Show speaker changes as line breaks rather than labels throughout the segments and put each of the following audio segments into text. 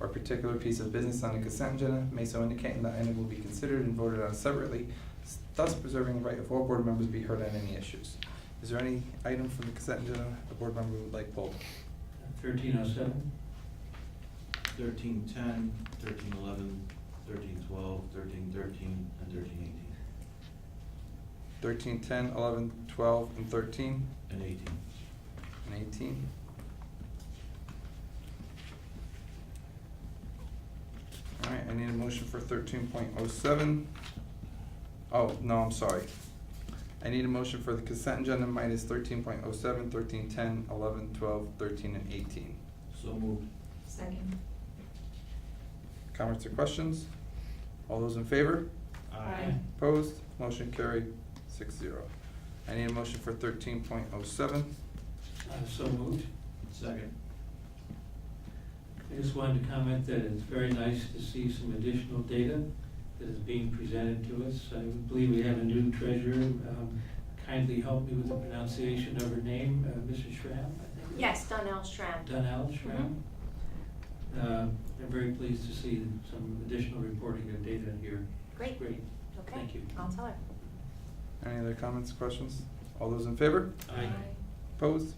or particular piece of business on the consent agenda may so indicate and that item will be considered and voted on separately, thus preserving the right of all board members to be heard on any issues. Is there any item from the consent agenda a board member would like pulled?
Thirteen oh seven?
Thirteen ten, thirteen eleven, thirteen twelve, thirteen thirteen, and thirteen eighteen,
Thirteen, ten, eleven, twelve, and thirteen,
and eighteen.
and eighteen? All right, I need a motion for thirteen point oh seven. Oh, no, I'm sorry. I need a motion for the consent agenda minus thirteen point oh seven, thirteen, ten, eleven, twelve, thirteen, and eighteen.
So moved.
Second.
Comments or questions? All those in favor?
Aye.
Opposed? Motion carried, six zero. I need a motion for thirteen point oh seven.
Uh, so moved.
Second.
I just wanted to comment that it's very nice to see some additional data that is being presented to us. I believe we have a new treasurer, um, kindly help me with the pronunciation of her name, uh, Mrs. Schramm, I think.
Yes, Mm-hmm. Donnell Schramm.
Donnell Schramm. Uh, I'm very pleased to see some additional reporting of data here.
Great.
Great.
Okay.
Thank you.
I'll tell her.
Any other comments, questions? All those in favor?
Aye.
Opposed?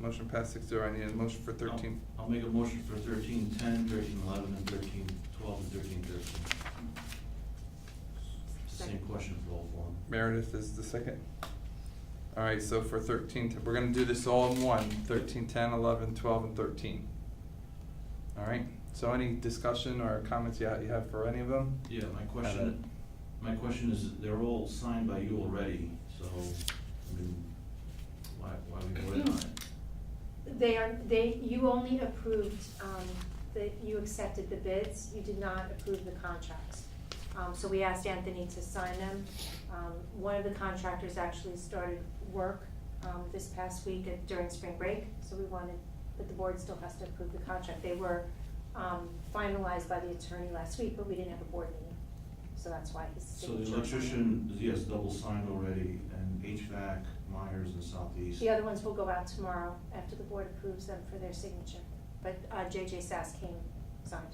Motion passed six zero. I need a motion for thirteen.
I'll I'll make a motion for thirteen ten, thirteen eleven, and thirteen twelve, and thirteen thirteen. Same
Second.
question for all four.
Meredith is the second. All right, so for thirteen, we're gonna do this all in one. Thirteen, ten, eleven, twelve, and thirteen. All right, so any discussion or comments you ha- you have for any of them?
Yeah, my question, my question is, they're all signed by you already, so, I mean, why, why we voted on it?
They are, they, you only approved, um, that you accepted the bids, you did not approve the contracts. Um, so we asked Anthony to sign them. Um, one of the contractors actually started work, um, this past week at- during spring break, so we wanted, but the board still has to approve the contract. They were, um, finalized by the attorney last week, but we didn't have a board meeting, so that's why his
So the
signature.
electrician, yes, double signed already, and HVAC, Myers and Southeast.
The other ones will go out tomorrow after the board approves them for their signature, but uh, JJ Sass came, signed.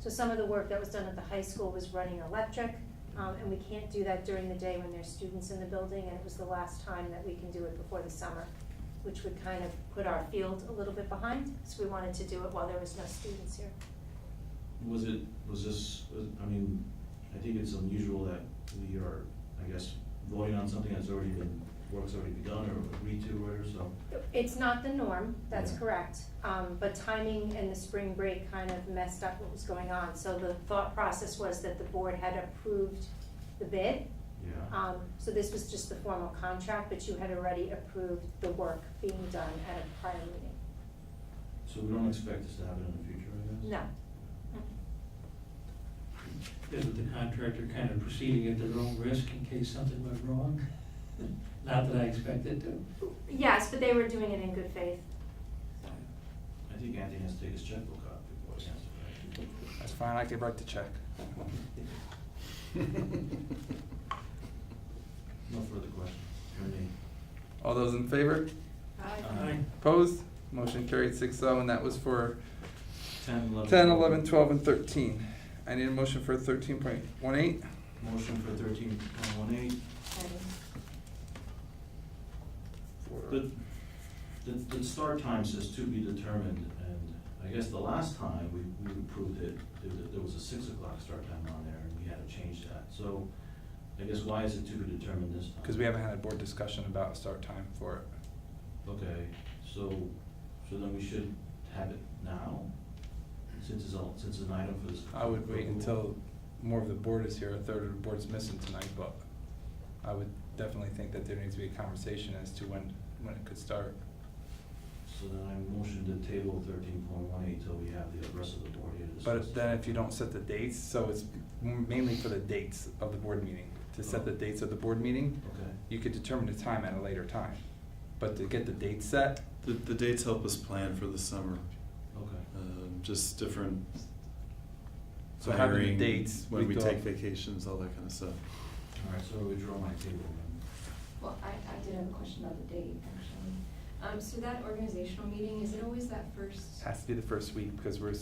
So some of the work that was done at the high school was running electric, um, and we can't do that during the day when there's students in the building, and it was the last time that we can do it before the summer, which would kind of put our field a little bit behind, so we wanted to do it while there was no students here.
Was it, was this, was, I mean, I think it's unusual that we are, I guess, voting on something that's already been, work's already begun or agreed to or whatever, so.
It's not the norm, that's
Yeah.
correct, um, but timing and the spring break kind of messed up what was going on, so the thought process was that the board had approved the bid,
Yeah,
um, so this was just the formal contract, but you had already approved the work being done at a prior meeting,
so we don't expect this to happen in the future, I guess?
no.
Isn't the contractor kind of proceeding at their own risk in case something went wrong? Not that I expect it to.
Yes, but they were doing it in good faith,
I think Anthony has to take his checkbook out before he has to. write.
That's fine, I can write the check.
No further questions, for me.
All those in favor?
Aye.
Opposed? Motion carried six oh, and that was for
Ten, eleven.
10, 11, 12, and 13. I need a motion for 13.18.
Motion for thirteen point one eight,
and
For-
The, the, the start time says to be determined, and I guess the last time we, we approved it, there, was- there was a six o'clock start time on there, and we had to change that, so I guess why is it to be determined this time?
Because we haven't had a board discussion about a start time for
Okay, so, so then we should have it now, since it's all, since it's an item for this.
it. I would wait until more of the board is here, a third of the board's missing tonight, but I would definitely think that there needs to be a conversation as to when, when it could start.
So then I motion to table thirteen point one eight till we have the rest of the board here to discuss.
But then if you don't set the dates, so it's mainly for the dates of the board meeting. To set
Oh.
the dates of the board meeting,
Okay.
you could determine the time at a later time. But to get the date set,
The, the dates help us plan for the summer,
Okay.
um, just different
So having the
hiring,
dates,
When
we
we
thought-
take vacations, all that kind of stuff.
All right, so I withdraw my table then.
Well, I, I did have a question about the date, actually. Um, so that organizational meeting, is it always that first?
has to be the first week because we're